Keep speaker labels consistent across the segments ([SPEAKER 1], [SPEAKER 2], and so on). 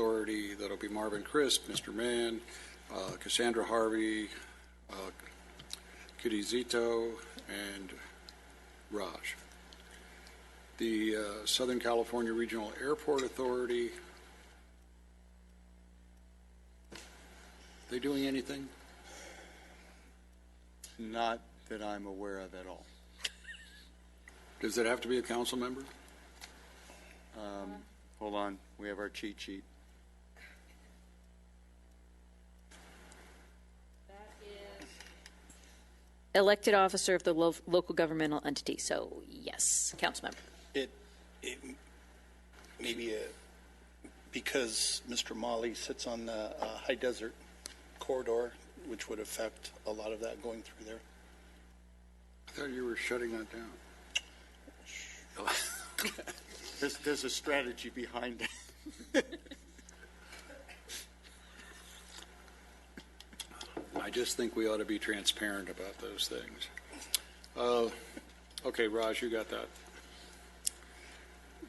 [SPEAKER 1] Authority, that'll be Marvin Crisp, Mr. Mann, uh, Cassandra Harvey, uh, Kitty Zito, and Raj. The uh, Southern California Regional Airport Authority, they doing anything?
[SPEAKER 2] Not that I'm aware of at all.
[SPEAKER 1] Does it have to be a council member?
[SPEAKER 2] Um, Hold on, we have our cheat sheet.
[SPEAKER 3] elected officer of the lo- local governmental entity, so yes, council member.
[SPEAKER 4] It, it, maybe, uh, because Mr. Molly sits on the uh, high desert corridor, which would affect a lot of that going through there.
[SPEAKER 1] I thought you were shutting that down.
[SPEAKER 2] There's, there's a strategy behind it.
[SPEAKER 1] I just think we ought to be transparent about those things. Uh, Okay, Raj, you got that.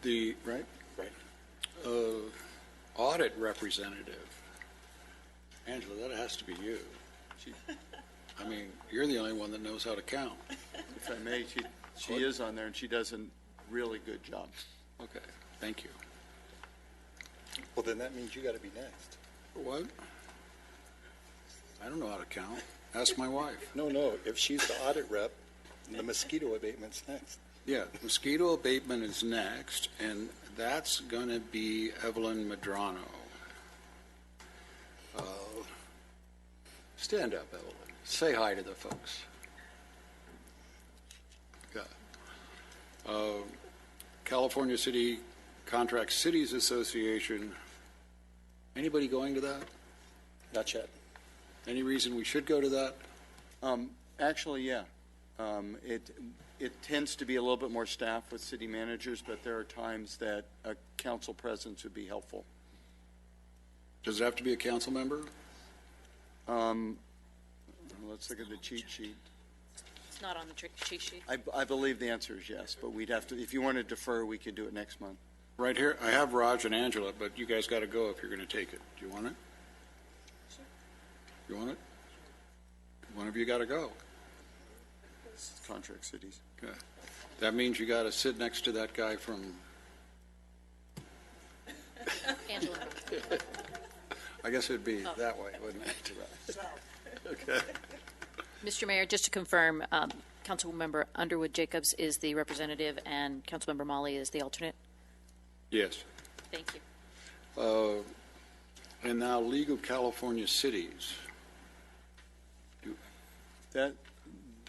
[SPEAKER 1] The, right?
[SPEAKER 4] Right.
[SPEAKER 1] Uh, Audit representative. Angela, that has to be you.
[SPEAKER 2] She-
[SPEAKER 1] I mean, you're the only one that knows how to count.
[SPEAKER 2] If I may, she, she is on there, and she does a really good job.
[SPEAKER 1] Okay, thank you.
[SPEAKER 4] Well, then that means you got to be next.
[SPEAKER 1] What? I don't know how to count. Ask my wife.
[SPEAKER 4] No, no, if she's the audit rep, the mosquito abatement's next.
[SPEAKER 1] Yeah, mosquito abatement is next, and that's going to be Evelyn Madrano. Uh, Stand up, Evelyn. Say hi to the folks. Yeah. Uh, California City Contract Cities Association. Anybody going to that?
[SPEAKER 4] Not yet.
[SPEAKER 1] Any reason we should go to that?
[SPEAKER 2] Um, Actually, yeah. Um, It, it tends to be a little bit more staff with city managers, but there are times that a council presence would be helpful.
[SPEAKER 1] Does it have to be a council member?
[SPEAKER 2] Um, Let's look at the cheat sheet.
[SPEAKER 3] It's not on the trick cheat sheet.
[SPEAKER 2] I, I believe the answer is yes, but we'd have to, if you want to defer, we could do it next month.
[SPEAKER 1] Right here, I have Raj and Angela, but you guys got to go if you're going to take it. Do you want it? You want it? One of you got to go.
[SPEAKER 2] Contract cities.
[SPEAKER 1] Okay. That means you got to sit next to that guy from,
[SPEAKER 3] Angela.
[SPEAKER 1] I guess it'd be that way, wouldn't it? Okay.
[SPEAKER 3] Mr. Mayor, just to confirm, um, Councilmember Underwood Jacobs is the representative and Councilmember Molly is the alternate.
[SPEAKER 1] Yes.
[SPEAKER 3] Thank you.
[SPEAKER 1] Uh, And now League of California Cities.
[SPEAKER 2] That,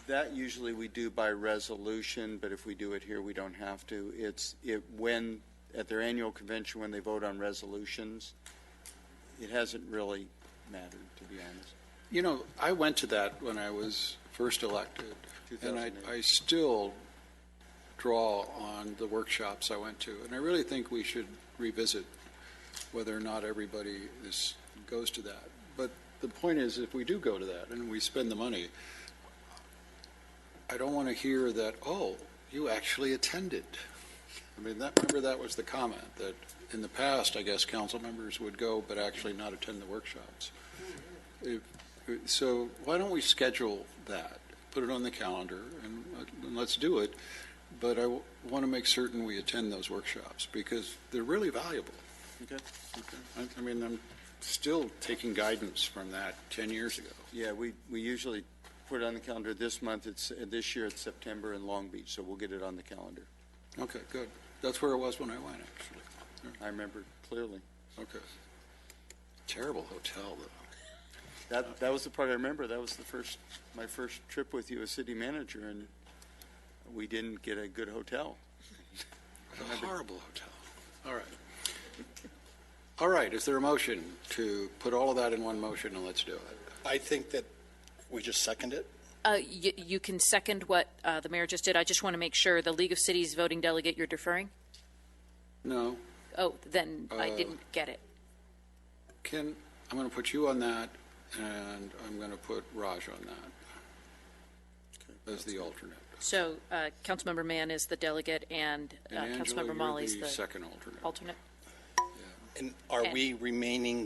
[SPEAKER 2] that usually we do by resolution, but if we do it here, we don't have to. It's, it, when, at their annual convention, when they vote on resolutions, it hasn't really mattered, to be honest.
[SPEAKER 1] You know, I went to that when I was first elected, and I,
[SPEAKER 2] 2008.
[SPEAKER 1] I still draw on the workshops I went to, and I really think we should revisit whether or not everybody is, goes to that. But the point is, if we do go to that and we spend the money, I don't want to hear that, oh, you actually attended. I mean, that, remember that was the comment, that in the past, I guess, council members would go but actually not attend the workshops. If- So why don't we schedule that, put it on the calendar, and uh, and let's do it, but I want to make certain we attend those workshops, because they're really valuable.
[SPEAKER 2] Okay.
[SPEAKER 1] I I mean, I'm still taking guidance from that 10 years ago.
[SPEAKER 2] Yeah, we, we usually put it on the calendar this month, it's, uh, this year it's September in Long Beach, so we'll get it on the calendar.
[SPEAKER 1] Okay, good. That's where it was when I went, actually.
[SPEAKER 2] I remember clearly.
[SPEAKER 1] Okay. Terrible hotel, though.
[SPEAKER 2] That, that was the part I remember, that was the first, my first trip with you as city manager, and we didn't get a good hotel.
[SPEAKER 1] A horrible hotel. All right. All right, is there a motion to put all of that in one motion, and let's do it?
[SPEAKER 4] I think that we just second it.
[SPEAKER 3] Uh, you, you can second what, uh, the mayor just did. I just want to make sure the League of Cities voting delegate you're deferring?
[SPEAKER 1] No?
[SPEAKER 3] Oh, then I
[SPEAKER 1] Uh,
[SPEAKER 3] didn't get it.
[SPEAKER 1] Ken, I'm going to put you on that, and I'm going to put Raj on that as the alternate.
[SPEAKER 3] So, uh, Councilmember Mann is the delegate and, uh,
[SPEAKER 1] And Angela,
[SPEAKER 3] Councilmember
[SPEAKER 1] you're
[SPEAKER 3] Molly is
[SPEAKER 1] the
[SPEAKER 3] the
[SPEAKER 1] second alternate.
[SPEAKER 3] alternate.
[SPEAKER 1] Yeah.
[SPEAKER 4] And are
[SPEAKER 3] Okay.
[SPEAKER 4] we remaining